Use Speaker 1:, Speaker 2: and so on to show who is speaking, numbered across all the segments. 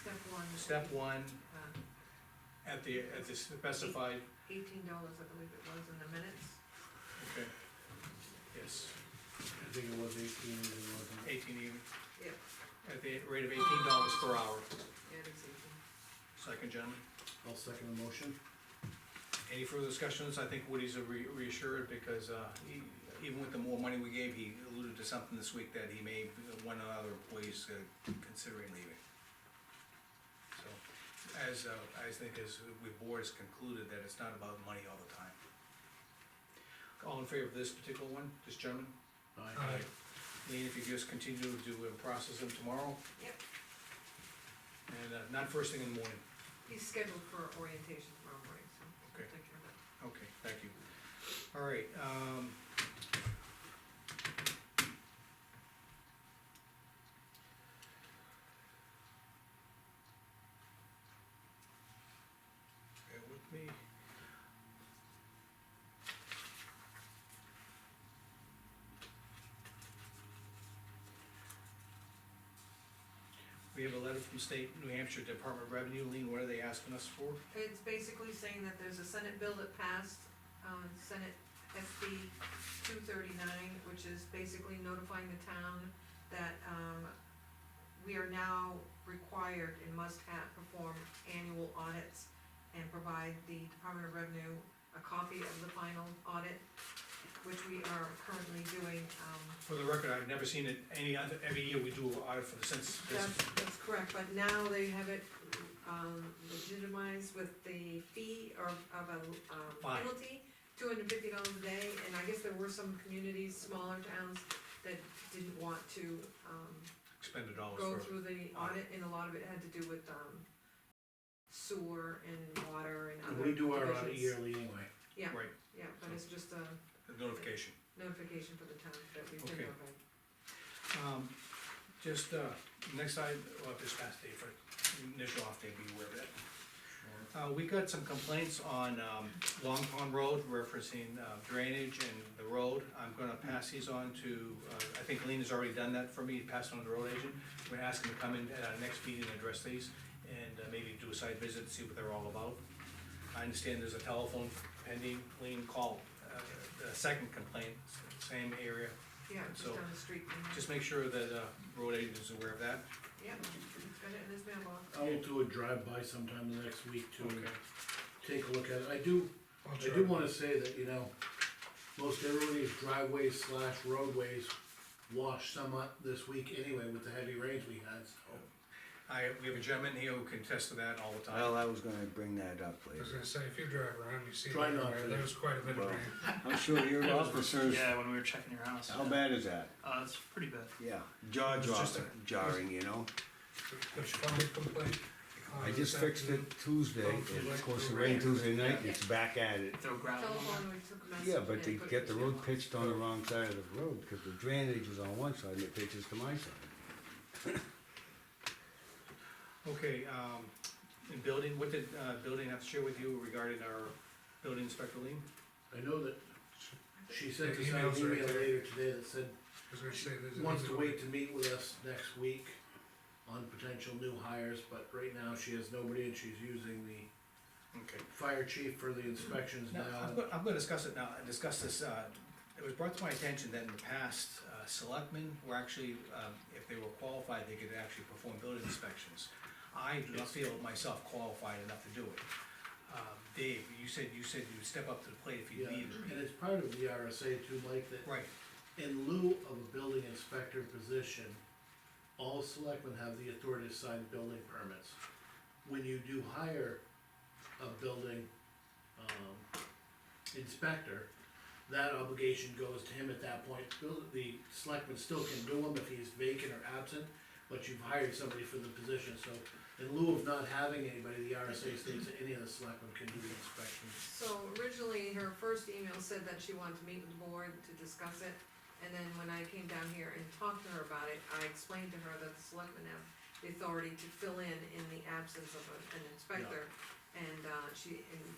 Speaker 1: Step one.
Speaker 2: Step one,
Speaker 1: Uh,
Speaker 2: at the, at the specified,
Speaker 1: Eighteen dollars, I believe it was, in the minutes.
Speaker 2: okay. Yes,
Speaker 3: I think it was eighteen, it wasn't.
Speaker 2: eighteen even.
Speaker 1: Yep.
Speaker 2: At the rate of eighteen dollars per hour.
Speaker 1: Yeah, it is eighteen.
Speaker 2: Second, gentlemen.
Speaker 3: I'll second the motion.
Speaker 2: Any further discussions? I think Woody's re- reassured because, uh, he- even with the more money we gave, he alluded to something this week that he may, one of the other employees uh, considering leaving. So, as, uh, I think as we board has concluded that it's not about money all the time. All in favor of this particular one, this gentleman?
Speaker 3: Aye.
Speaker 2: Lean, if you just continue to uh, process them tomorrow
Speaker 1: Yep,
Speaker 2: and, uh, not first thing in the morning.
Speaker 1: he's scheduled for orientation tomorrow morning, so. we'll
Speaker 2: Okay.
Speaker 1: Take care of that.
Speaker 2: Okay, thank you. All right, um. Bear with me. We have a letter from State New Hampshire Department of Revenue, Lean, what are they asking us for?
Speaker 1: It's basically saying that there's a Senate bill that passed, um, Senate SB two thirty-nine, which is basically notifying the town that, um, we are now required and must have, perform annual audits and provide the Department of Revenue a copy of the final audit, which we are currently doing, um,
Speaker 2: For the record, I've never seen it any other, every year we do an audit for the census
Speaker 1: That's,
Speaker 2: business.
Speaker 1: that's correct, but now they have it, um, legitimized with the fee or of a, um,
Speaker 2: Fine.
Speaker 1: penalty, two hundred and fifty dollars a day, and I guess there were some communities, smaller towns, that didn't want to, um,
Speaker 2: Expend the dollars
Speaker 1: go
Speaker 2: for,
Speaker 1: through the audit, and a lot of it had to do with, um, sewer and water and other
Speaker 3: We
Speaker 1: divisions.
Speaker 3: do our audit yearly anyway.
Speaker 2: right,
Speaker 1: Yeah, but it's just a
Speaker 2: the notification.
Speaker 1: notification for the town that we've
Speaker 2: Okay.
Speaker 1: been notified.
Speaker 2: Um, just, uh, next item, well, this past day for initial off day, be aware of that. Uh, we got some complaints on, um, Long Pond Road referencing uh, drainage and the road. I'm gonna pass these on to, uh, I think Lean has already done that for me, passed on to the road agent. We're gonna ask him to come in at our next meeting and address these, and uh, maybe do a site visit, see what they're all about. I understand there's a telephone pending, Lean called, uh, the second complaint, same area.
Speaker 1: Yeah, just
Speaker 2: So,
Speaker 1: down the street, from here.
Speaker 2: Just make sure that, uh, road agent is aware of that.
Speaker 1: yeah, it's got it in his mailbox.
Speaker 3: I will do a drive-by sometime the next week to
Speaker 2: Okay.
Speaker 3: take a look at it. I do, I do wanna say that, you know, most everybody's driveways slash roadways washed somewhat this week anyway with the heavy rains we had, so.
Speaker 2: I, we have a gentleman here who can test to that all the time.
Speaker 4: Well, I was gonna bring that up
Speaker 5: I was
Speaker 4: later.
Speaker 5: gonna say, if you drive around, you see,
Speaker 3: Try not
Speaker 5: everywhere,
Speaker 3: to.
Speaker 5: there's quite a bit
Speaker 4: Well,
Speaker 5: of rain.
Speaker 4: I'm sure your officers,
Speaker 6: Yeah, when we were checking your house.
Speaker 4: how bad is that?
Speaker 6: Uh, it's pretty bad.
Speaker 4: Yeah, jaw
Speaker 5: It's just
Speaker 4: dropping, jarring, you know?
Speaker 5: There's public complaint. uh,
Speaker 4: I just
Speaker 5: this
Speaker 4: fixed it
Speaker 5: afternoon.
Speaker 4: Tuesday, and of course it rained Tuesday night, and it's back at it.
Speaker 6: Throw gravel on there.
Speaker 1: Telephone, we took a message.
Speaker 4: Yeah, but
Speaker 1: and
Speaker 4: they
Speaker 1: put it
Speaker 4: get the
Speaker 1: in his
Speaker 4: road
Speaker 1: mailbox.
Speaker 4: pitched on the wrong side of the road, cause the drainage was on one side and it pitches to my side.
Speaker 2: Okay, um, and building, what did, uh, building have to share with you regarding our building inspector lien?
Speaker 3: I know that she sent
Speaker 5: The
Speaker 3: us an
Speaker 5: emails are
Speaker 3: email
Speaker 5: there.
Speaker 3: later today that said
Speaker 5: I was gonna say, there's. a-
Speaker 3: wants to wait to meet with us next week on potential new hires, but right now she has nobody and she's using the
Speaker 2: Okay.
Speaker 3: fire chief for the inspections
Speaker 2: Now, I'm
Speaker 3: now.
Speaker 2: gonna, I'm gonna discuss it now, discuss this, uh, it was brought to my attention that in the past, uh, selectmen were actually, um, if they were qualified, they could actually perform building inspections. I do not feel myself qualified enough to do it. Um, Dave, you said, you said you'd step up to the plate if you
Speaker 3: Yeah,
Speaker 2: needed.
Speaker 3: and it's part of the E RSA too, Mike, that
Speaker 2: Right,
Speaker 3: in lieu of a building inspector position, all selectmen have the authority to sign building permits. When you do hire a building, um, inspector, that obligation goes to him at that point. Bill- The selectman still can do them if he's vacant or absent, but you've hired somebody for the position, so in lieu of not having anybody, the RSA states that any of the selectmen can do the inspection.
Speaker 1: So originally, her first email said that she wanted to meet with the board to discuss it, and then when I came down here and talked to her about it, I explained to her that the selectmen have the authority to fill in in the absence of a- an inspector. And, uh, she, and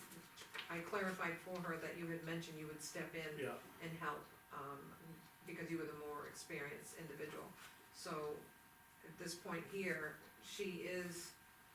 Speaker 1: I clarified for her that you had mentioned you would step in
Speaker 3: Yeah,
Speaker 1: and help, um, because you were the more experienced individual. So, at this point here, she is